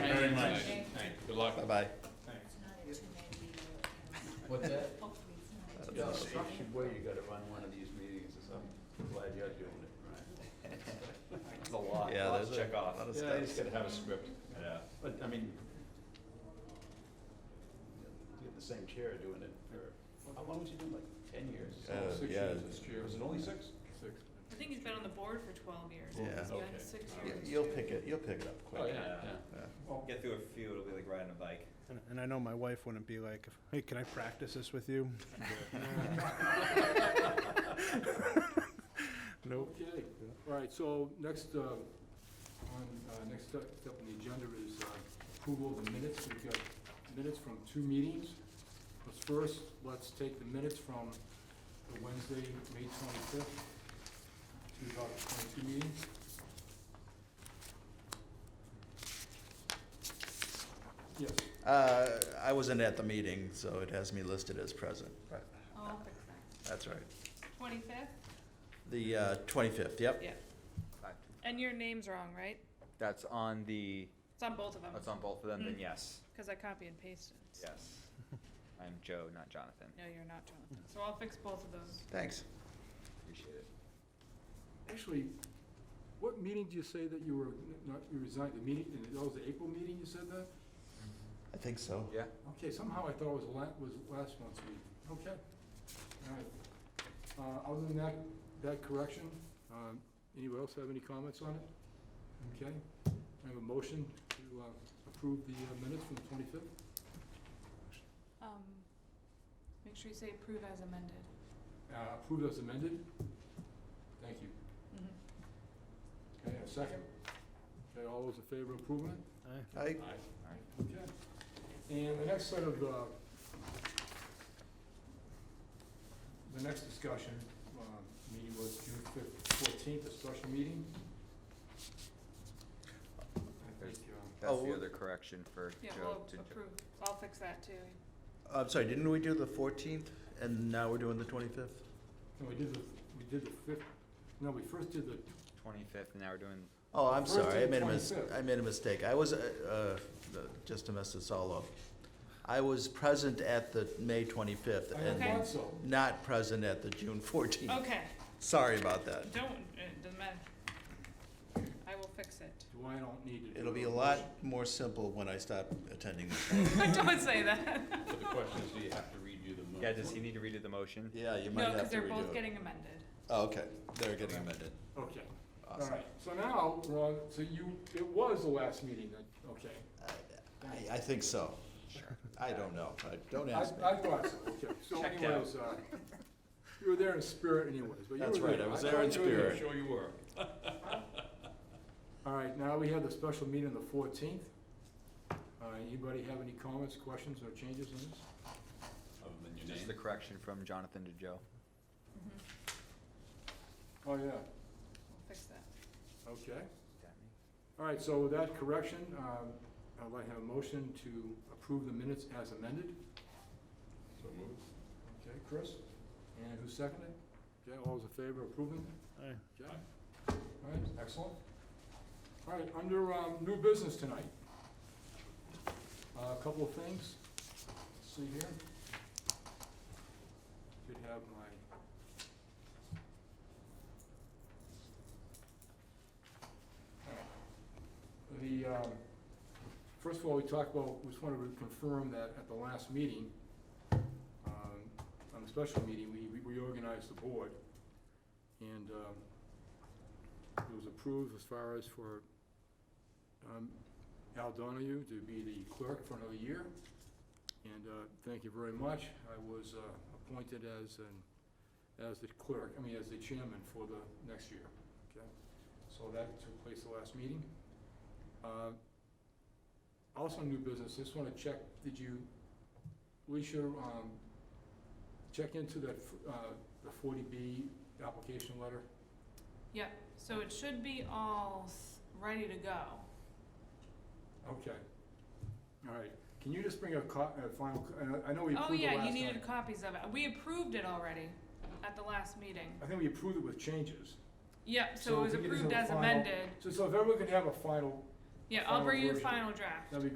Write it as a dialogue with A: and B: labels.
A: very much.
B: Thank
C: Good luck.
A: Bye-bye.
B: Thanks.
D: What's that? No, it's not your way, you gotta run one of these meetings or something. I'm Glad you're doing it, right? It's a lot,
A: Yeah, there's
D: lots to
A: a
D: check off.
A: lot of
D: Yeah, you just
A: steps.
D: gotta have a script, yeah. But, I mean, you have the same chair doing it for, how long was you doing, like ten years?
A: Uh,
D: Six
A: yeah.
D: years this chair. Was it only six?
C: Six.
E: I think he's been on the board for twelve years.
A: Yeah.
E: He's
D: Okay.
E: been six
D: Y-
E: years.
A: You'll pick it, you'll pick it up
D: Oh,
A: quick.
D: yeah, yeah.
A: Yeah.
B: Get through a few, it'll be like riding a bike.
F: And, and I know Oh, my wife wouldn't be like, hey, can I practice this with you? Nope.
C: Okay, all right, so next, uh, on, uh, next step step on the agenda is uh, approval of the minutes. We've got minutes from two meetings. But first, let's take the minutes from the Wednesday, May twenty-fifth, two thousand twenty-two meeting. Yes,
A: Uh, I wasn't at the meeting, so it has me listed as present, but
E: Oh, I'll fix that.
A: that's all right.
E: Twenty-fifth?
A: The, uh, twenty-fifth, yep.
E: Yeah. And your name's wrong, right?
B: That's on the,
E: It's on both of them,
B: that's on both of them, then
E: Mm.
B: yes,
E: because I copy and pasted.
B: yes. I'm Joe, not Jonathan.
E: No, you're not, Jonathan. So I'll fix both of those.
A: Thanks.
B: Appreciate it.
C: actually, what meeting do you say that you were, n- not, you resigned, the meeting, that was the April meeting you said that?
A: I think so.
B: Yeah.
C: Okay, somehow I thought it was la- was last month's meeting. Okay. All right. Uh, other than that, that correction, um, anyone else have any comments on it? Okay. I have a motion to, uh, approve the uh, minutes from the twenty-fifth.
E: Um, make sure you say approve as amended.
C: Uh, approved as amended. Thank you.
F: Mm-hmm.
C: Okay, a second. Okay, all those in favor of approving it?
A: I,
C: Okay. And the next set of, uh, the next discussion, um, meeting was June fif- fourteenth, a special meeting. I think, uh,
B: That's the
A: Oh.
B: other correction for
E: Yeah,
B: Joe
E: we'll
B: to Jo-
E: approve. I'll fix that too.
A: I'm sorry, didn't we do the fourteenth and now we're doing the twenty-fifth?
C: no, we did the, we did the fifth, no, we first did the,
B: twenty-fifth, and now we're doing,
A: Oh, I'm
C: First
A: sorry, I
C: and
A: made a mis-
C: 25th.
A: I made a mistake. I was, uh, uh, just to mess this all up. I was present at the May twenty-fifth
C: I
A: and
E: Okay.
C: thought so.
A: not present at the June fourteenth.
E: Okay,
A: Sorry about that.
E: don't, it doesn't matter. I will fix it.
C: Do I don't need to do
A: It'll be a lot
C: motion?
A: more simple when I stop attending this.
E: Don't say that.
D: So the question is, do you have to redo the minutes?
B: yeah, does he need to redo the motion?
A: Yeah, you might
E: No,
A: have
E: because
A: to
E: they're both
A: redo it.
E: getting amended.
A: Oh, okay, they're getting amended.
C: Okay, all
A: Awesome.
C: right. So now, we're on so you, it was the last meeting then, okay.
A: I, I think so. Sure. I don't know. I- Don't
C: I,
A: ask me.
C: I thought so, okay. So
B: Checked out.
C: anyways, uh, you were there in spirit anyways, but you were there.
A: That's right, I was there
C: thought
A: in
C: you were
A: spirit.
D: Sure you were.
C: All right, now we have the special meeting on the fourteenth. Uh, anybody have any comments, questions, or changes on this?
D: Other than your
B: Just the
D: name.
B: correction from Jonathan to Joe.
E: Mm-hmm.
C: Oh, yeah,
E: I'll fix that.
C: okay. All right, so with that correction, um, I'd like to have a motion to approve the minutes as amended.
D: So moved.
C: Okay, Chris? And who seconded? Okay, all those in favor of approving?
F: Aye.
C: Okay. All right, excellent. All right, under um, new business tonight, Uh, a couple of things. Let's See here. Could have my. All right. The, um, first of all, we talked about, we just wanted to confirm that at the last meeting, um, on the special meeting, we we reorganized the board. And um, it was approved as far as for um, Al Donahue to be the clerk for another year. And uh, thank you very much. I was uh, appointed as, an- as the clerk, I mean, as the chairman for the next year. Okay, So that took place the last meeting. Uh, Also, new business, just want to check, did you, Alicia, um, check into that, f- uh, the 40B application letter?
E: So it should be all s- ready to go.
C: Okay. All right. Can you just bring a co- a final, co- uh, I know we
E: Oh,
C: approved it last time.
E: yeah, you needed copies of it. We approved it already at the last meeting.
C: I think we approved it with changes.
E: Yep, so
C: So
E: it
C: we
E: was
C: can just
E: approved
C: have a
E: as
C: final-
E: amended.
C: So, so if everyone could have a final,
E: Yeah, I'll
C: final
E: bring you the
C: version.
E: final draft.
C: that'd be